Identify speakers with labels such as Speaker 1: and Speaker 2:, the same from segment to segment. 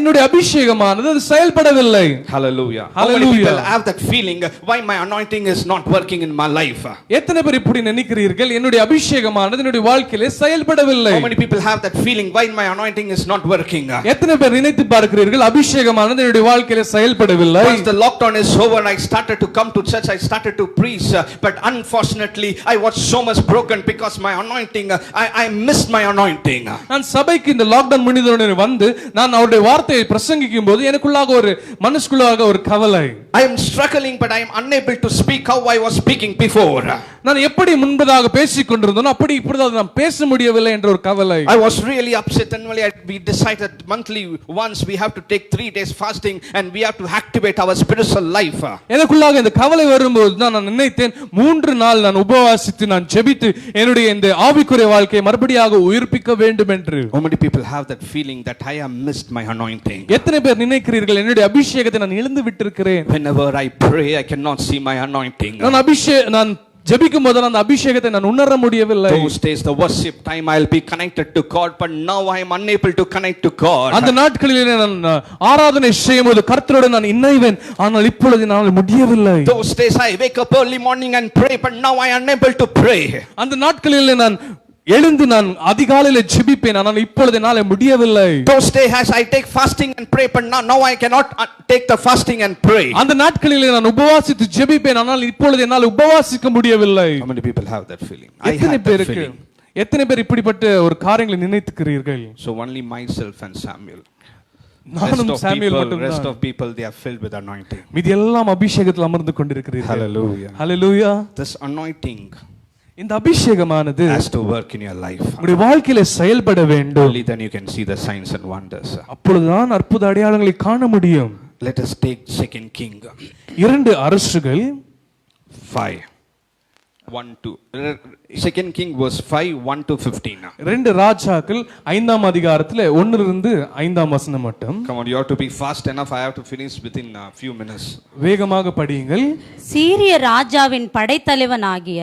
Speaker 1: என்னுடைய அபிஷேகமானது அது செயல்படவில்லை hallelujah
Speaker 2: How many
Speaker 1: hallelujah
Speaker 2: people have that feeling? uh, Why my anointing is not working in my life? Uh,
Speaker 1: எத்தனை பேர் இப்படி நினைக்கிறீர்கள் என்னுடைய அபிஷேகமானது என்னுடைய வாழ்க்கையிலே செயல்படவில்லை
Speaker 2: How many people have that feeling? Why my anointing is not working? Uh,
Speaker 1: எத்தனை பேர் நினைத்து பார்க்கிறீர்கள் அபிஷேகமானது என்னுடைய வாழ்க்கையில செயல்படவில்லை
Speaker 2: Once the lockdown is over, I started to come to church, I started to preach, uh, but unfortunately, I was so much broken because my anointing, uh, I, I missed my anointing. Uh,
Speaker 1: நான் சபைக்கு இந்த lockdown முடிந்தவுடனே வந்து நான் அவருடைய வார்த்தையை பிரசங்கிக்கும் போது எனக்குள்ளாக ஒரு மனசுக்குள்ளாக ஒரு கவலை
Speaker 2: I am struggling, but I am unable to speak how I was speaking before. Uh,
Speaker 1: நான் எப்படி முன்பதாக பேசிக் கொண்டிருந்தோம் அப்படி இப்பொழுது நான் பேச முடியவில்லை என்ற ஒரு கவலை
Speaker 2: I was really upset, and really I, we decided monthly once we have to take three days fasting and we have to activate our spiritual life. Uh,
Speaker 1: எனக்குள்ளாக இந்த கவலை வரும்போது தான் நான் நினைத்தேன் மூன்று நாள் நான் உபவாசித்து நான் ஜெபித்து என்னுடைய இந்த ஆவிக்குரிய வாழ்க்கையை மறுபடியாக உயிர்ப்பிக்க வேண்டும் என்று
Speaker 2: How many people have that feeling that I have missed my anointing?
Speaker 1: எத்தனை பேர் நினைக்கிறீர்கள் என்னுடைய அபிஷேகத்தை நான் இழந்து விட்டிருக்கிறேன்
Speaker 2: Whenever I pray, I cannot see my anointing.
Speaker 1: நான் அபிஷே நான் ஜெபிக்கும் போது அந்த அபிஷேகத்தை நான் உணர முடியவில்லை
Speaker 2: Those days, the worship time, I'll be connected to God, but now I am unable to connect to God.
Speaker 1: அந்த நாட்களிலே நான் அஹ், ஆராதனை செய்யும் போது கர்த்தரோடு நான் இணைவேன் ஆனால் இப்பொழுது என்னால் முடியவில்லை
Speaker 2: Those days, I wake up early morning and pray, but now I am unable to pray.
Speaker 1: அந்த நாட்களிலே நான் எழுந்து நான் அதிகாலையில ஜெபிப்பேன் ஆனால் இப்பொழுது என்னால் முடியவில்லை
Speaker 2: Those days, I take fasting and pray, but now, now I cannot uh, take the fasting and pray.
Speaker 1: அந்த நாட்களிலே நான் உபவாசித்து ஜெபிப்பேன் ஆனால் இப்பொழுது என்னால் உபவாசிக்க முடியவில்லை
Speaker 2: How many people have that feeling? I
Speaker 1: எத்தனை
Speaker 2: had that
Speaker 1: பேருக்கு
Speaker 2: feeling.
Speaker 1: எத்தனை பேர் இப்படிப்பட்ட ஒரு காரியங்களை நினைத்துக்கிறீர்கள்
Speaker 2: So only myself and Samuel. Rest
Speaker 1: நானும்
Speaker 2: of
Speaker 1: சாமியல்
Speaker 2: people, rest
Speaker 1: மட்டும்தான்
Speaker 2: of people, they are filled with anointing.
Speaker 1: மீதி எல்லாம் அபிஷேகத்தில் அமர்ந்து கொண்டிருக்கிறீர்கள்
Speaker 2: Hallelujah.
Speaker 1: ஹalleluya
Speaker 2: This anointing
Speaker 1: இந்த அபிஷேகமானது
Speaker 2: has to work in your life.
Speaker 1: உங்களுடைய வாழ்க்கையில செயல்பட வேண்டும்
Speaker 2: Only then you can see the signs and wonders.
Speaker 1: அப்பொழுதுதான் அற்புத அடையாளங்களை காண முடியும்
Speaker 2: Let us take Second King
Speaker 1: இரண்டு அரசுகள்
Speaker 2: five, one to Second King verse five, one to fifteen.
Speaker 1: ரெண்டு ராஜாக்கள் ஐந்தாம் அதிகாரத்துல ஒண்ணுல இருந்து ஐந்தாம் வசனம் மட்டும்
Speaker 2: Come on, you have to be fast enough. I have to finish within a few minutes.
Speaker 1: வேகமாக படியுங்கள்
Speaker 3: சீரிய ராஜாவின் படைத்தலைவனாகிய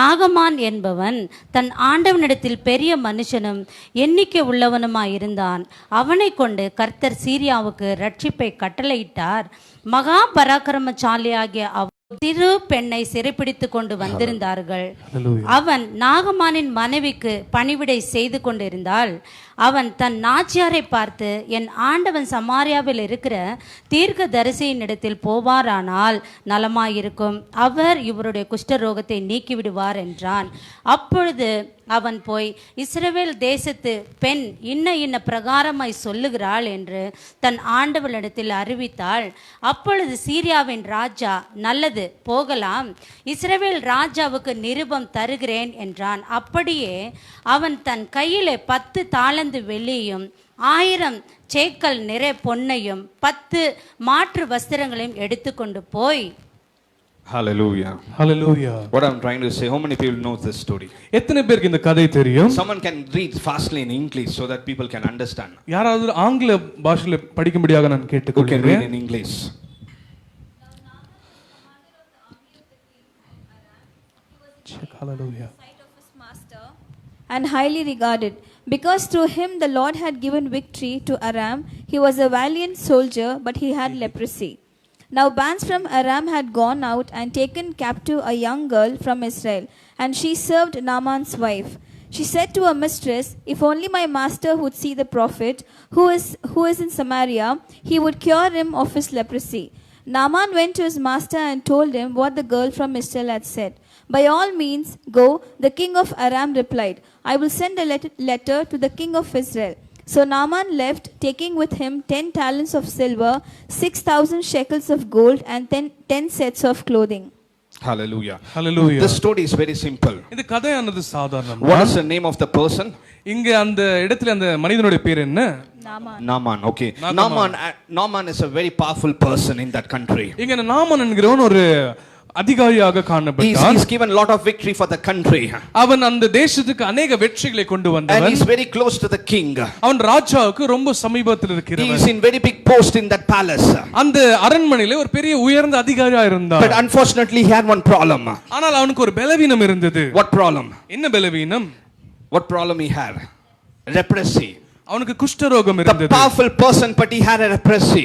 Speaker 3: நாகமான் என்பவன் தன் ஆண்டவனிடத்தில் பெரிய மனுஷனும் எண்ணிக்கை உள்ளவனுமாயிருந்தான் அவனை கொண்டு கர்த்தர் சீரியாவுக்கு ரட்சிப்பை கட்டளையிட்டார் மகா பராக்கிரமசாலியாகிய அவ் திரு பெண்ணை சிறைப்பிடித்து கொண்டு வந்திருந்தார்கள்
Speaker 1: Hallelujah.
Speaker 3: அவன் நாகமானின் மனைவிக்கு பணிவிடை செய்து கொண்டிருந்தாள் அவன் தன் நாச்சியாரை பார்த்து என் ஆண்டவன் சமாரியாவில் இருக்கிற தீர்க்க தரிசியினிடத்தில் போவாரானால் நலமாயிருக்கும் அவர் இவருடைய குஷ்டரோகத்தை நீக்கிவிடுவார் என்றான் அப்பொழுது அவன் போய் இஸ்ரவேல் தேசத்து பெண் இன்ன இன்ன பிரகாரமாய் சொல்லுகிறாள் என்று தன் ஆண்டவளிடத்தில் அறிவித்தாள் அப்பொழுது சீரியாவின் ராஜா நல்லது போகலாம் இஸ்ரவேல் ராஜாவுக்கு நிருபம் தருகிறேன் என்றான் அப்படியே அவன் தன் கையிலே பத்து தாளந்து வெள்ளியும் ஆயிரம் சேக்கல் நிறை பொன்னையும் பத்து மாற்று வஸ்திரங்களையும் எடுத்துக்கொண்டு போய்
Speaker 2: Hallelujah.
Speaker 1: Hallelujah
Speaker 2: What I'm trying to say, how many people know this story?
Speaker 1: எத்தனை பேருக்கு இந்த கதை தெரியும்
Speaker 2: Someone can read fastly in English so that people can understand.
Speaker 1: யாராவது ஆங்கில பாஷையில படிக்கும்படியாக நான்
Speaker 2: Who can read
Speaker 1: கேட்டுக்கொள்கிறேன்
Speaker 2: in English?
Speaker 1: Hallelujah
Speaker 4: sight of his master and highly regarded. Because through him the Lord had given victory to Aram, he was a valiant soldier, but he had leprosy. Now bands from Aram had gone out and taken captive a young girl from Israel, and she served Naaman's wife. She said to her mistress, If only my master would see the prophet who is, who is in Samaria, he would cure him of his leprosy. Naaman went to his master and told him what the girl from Israel had said. By all means, go, the king of Aram replied. I will send a let- letter to the king of Israel. So Naaman left, taking with him ten talents of silver, six thousand shekels of gold, and ten, ten sets of clothing.
Speaker 2: Hallelujah.
Speaker 1: Hallelujah
Speaker 2: This story is very simple.
Speaker 1: இந்த கதையானது சாதாரணம்
Speaker 2: What is the name of the person?
Speaker 1: இங்க அந்த இடத்துல அந்த மனிதனுடைய பேர் என்ன
Speaker 4: Naaman.
Speaker 2: Naaman. Okay.
Speaker 1: Naaman.
Speaker 2: Naaman. uh, Naaman is a very powerful person in that country.
Speaker 1: இங்க இந்த நாமன் என்கிறவன் ஒரு அதிகாரியாக
Speaker 2: He's,
Speaker 1: காணப்பட்டான்
Speaker 2: he's given a lot of victory for the country.
Speaker 1: அவன் அந்த தேசத்துக்கு அநேக வெற்றிகளை கொண்டு
Speaker 2: And
Speaker 1: வந்தவன்
Speaker 2: he's very close to the king.
Speaker 1: அவன் ராஜாவுக்கு ரொம்ப சமீபத்தில்
Speaker 2: He
Speaker 1: இருக்கிறவன்
Speaker 2: is in very big post in that palace.
Speaker 1: அந்த அரண்மனையில ஒரு பெரிய உயர்ந்த அதிகாரியா இருந்தான்
Speaker 2: But unfortunately, he had one problem.
Speaker 1: ஆனால் அவனுக்கு ஒரு பலவீனம் இருந்தது
Speaker 2: What problem?
Speaker 1: என்ன பலவீனம்
Speaker 2: What problem he had? Leprosy.
Speaker 1: அவனுக்கு குஷ்டரோகம்
Speaker 2: The
Speaker 1: இருந்தது
Speaker 2: powerful person, but he had a leprosy.